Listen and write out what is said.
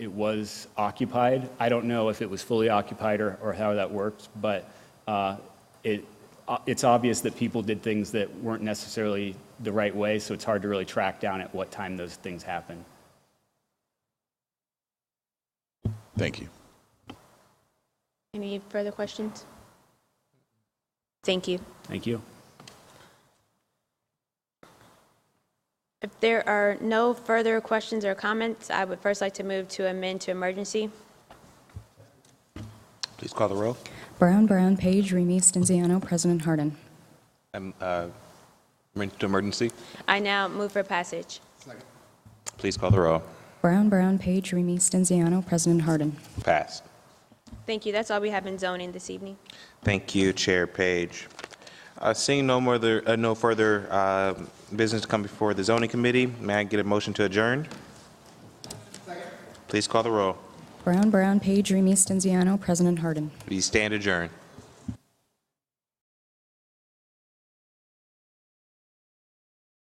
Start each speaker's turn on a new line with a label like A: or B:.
A: it was occupied. I don't know if it was fully occupied or, or how that worked, but uh, it, uh, it's obvious that people did things that weren't necessarily the right way, so it's hard to really track down at what time those things happened.
B: Thank you.
C: Any further questions? Thank you.
A: Thank you.
C: If there are no further questions or comments, I would first like to move to amend to emergency.
D: Please call the roll.
E: Brown, Brown, Page, Remy, Stenziano, President Harden.
D: Um, uh, Emergency to emergency.
C: I now move for passage.
D: Please call the roll.
E: Brown, Brown, Page, Remy, Stenziano, President Harden.
D: Passed.
C: Thank you. That's all we have in zoning this evening.
D: Thank you, Chair Page. Uh, Seeing no more, other- uh, no further uh, business to come before the zoning committee, may I get a motion to adjourn? Please call the roll.
E: Brown, Brown, Page, Remy, Stenziano, President Harden.
D: We stand adjourned.